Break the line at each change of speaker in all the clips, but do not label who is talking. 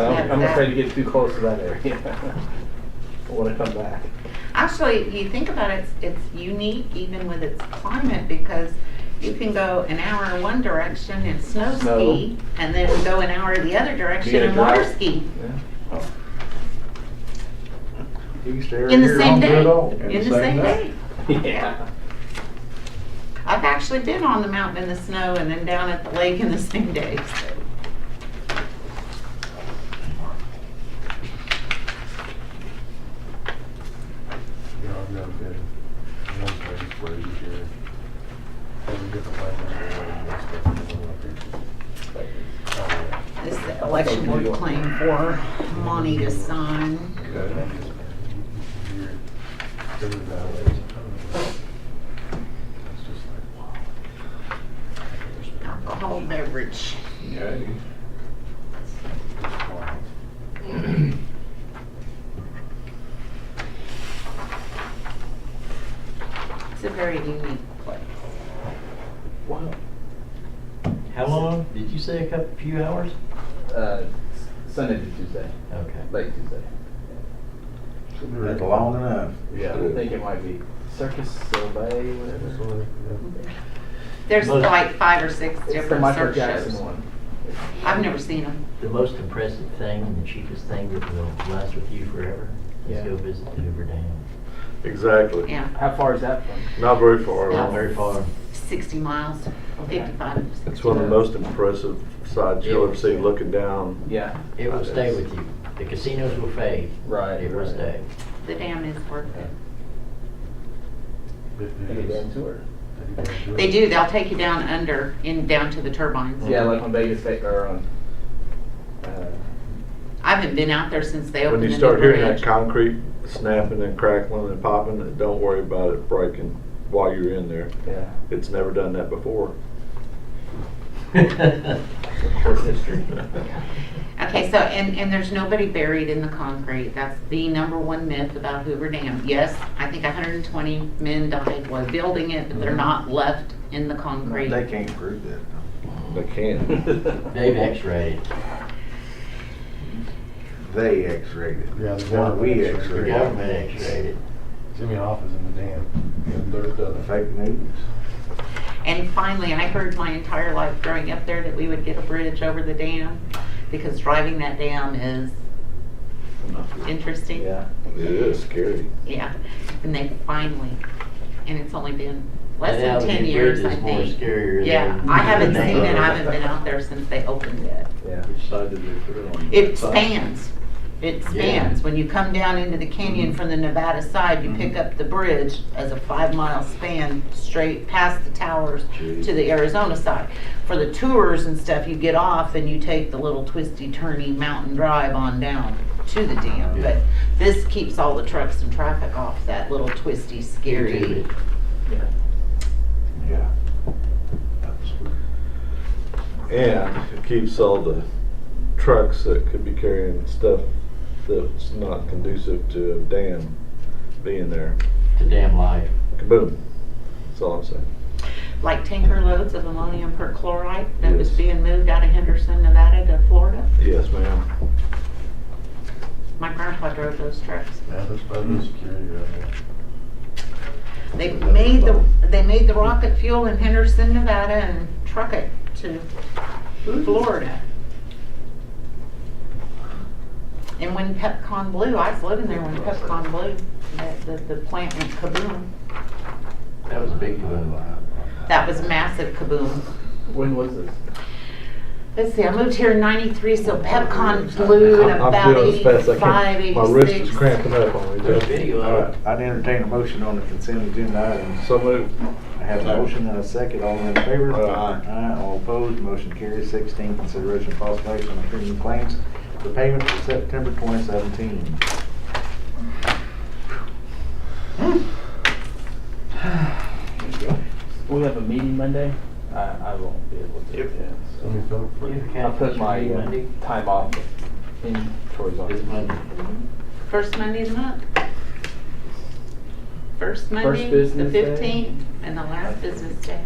I'm afraid to get too close to that area. I wanna come back.
Actually, you think about it, it's it's unique even with its climate because you can go an hour in one direction and snow
Snow.
ski and then go an hour the other direction
get a
and water
drought.
ski
Yeah.
in the same day.
In
In the
the
same
same day.
day.
Yeah.
I've actually been on the mountain in the snow and then down at the lake in the same day. so.
Yeah, I've never been in one place where you hear every different language or whatever, it's different Oh, than
This is the election board claim for Monty to sign.
what I hear. You hear different dialects. It's just like, wow.
Alcohol beverage.
Wow.
It's a very unique place.
Wow. How long? Did you say a couple, few hours?
Uh, s- Sunday to Tuesday,
Okay.
late Tuesday.
That's long enough.
Yeah, I think it might be Circus Soleil, whatever.
So, yeah.
There's
Most-
like five or six
It's the
different
Michael
surf
Jackson
shows.
one.
I've never seen them.
The most impressive thing and the cheapest thing that will last with you forever is
Yeah.
go visit the Hoover Dam.
Exactly.
Yeah,
How far is that from?
Not very far.
Not
off.
very far.
60 miles, 55.
It's one of the most impressive sights you'll ever see looking down.
Yeah.
It will stay with you. The casinos will fade.
Right,
It will
right.
stay.
The dam is worth it.
But it
Take a
is-
damn tour.
they can do it.
They do, they'll take you down under, in, down to the turbines.
Yeah, like on Vegas, Fa- or on, uh,
I haven't been out there since they
When
opened the
you
new
start hearing that
bridge.
concrete snapping and crackling and popping, don't worry about it breaking while you're in there.
yeah,
It's never done that before.
of course, history.
Okay, so, and, and there's nobody buried in the concrete. That's the number one myth about Hoover Dam. Yes, I think 120 men died while building it, but
Mm-hmm.
they're not left in the concrete.
They can't prove that.
They can.
They've x-rayed. it.
They x-rayed it.
Yeah, the
Not we
government
The
x-rayed
x-rayed
it.
government x-rayed it.
Jimmy Hoff is in the dam, and there's the
Fake news.
And finally, I heard my entire life growing up there that we would get a bridge over the dam because driving that dam is interesting.
Yeah.
It is scary.
Yeah. And they finally, and it's only been less
That
than
Avenue
ten
Bridge
years, I
is more
think.
scarier than.
Yeah, I haven't
than
seen it.
that.
I haven't been out there since they opened it.
Yeah.
Which side did they put it on?
It
Side?
spans. It spans. When you come down into the canyon from the Nevada side, you pick up the bridge as a five mile span straight past the towers
Gee.
to the Arizona side. For the tours and stuff, you get off and you take the little twisty turny mountain drive on down to the dam. But this keeps all the trucks and traffic off that little twisty, scary.
Yeah.
Yeah. That's weird.
And it keeps all the trucks that could be carrying stuff that's not conducive to a dam being there.
To damn life.
Kaboom. That's all I'm saying.
Like tanker loads of ammonium perchlorate that was
Yes.
being moved out of Henderson, Nevada to Florida.
Yes, ma'am.
My grandpa drove those trucks.
Yeah, that's probably the security right there.
They made the, they made the rocket fuel in Henderson, Nevada and truck it to Florida. And when Pepcon blew, I was living there when Pepcon blew, that- the, the plant went kaboom.
That was a big one.
That was massive kaboom.
When was this?
Let's see, I moved here in ninety-three, so Pepcon blew in
I'm- I'm
about
feeling as fast as I
eighty-five,
can. My wrist is
eighty-six.
cramping up on me.
There's
Jeff.
video
All
of
right, I'd entertain a motion on the consent agenda items.
So moved.
I have a motion and a second. All in favor?
Aye.
Aye, all opposed. Motion carries. Sixteen, consideration of possible action on approving claims for payment for September twenty seventeen.
We have a meeting Monday. I, I won't be able to.
Yep.
attend, so.
Let me feel it for
it.
you.
You
I
can't-
put my uh,
Monday.
time off in Troy's
It's
office.
Monday.
Mm-hmm. First Monday of the month. First Monday, the
business day.
fifteenth, and the last business day.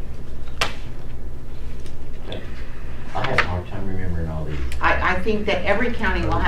I have a hard time remembering all these.
I, I think that every county will have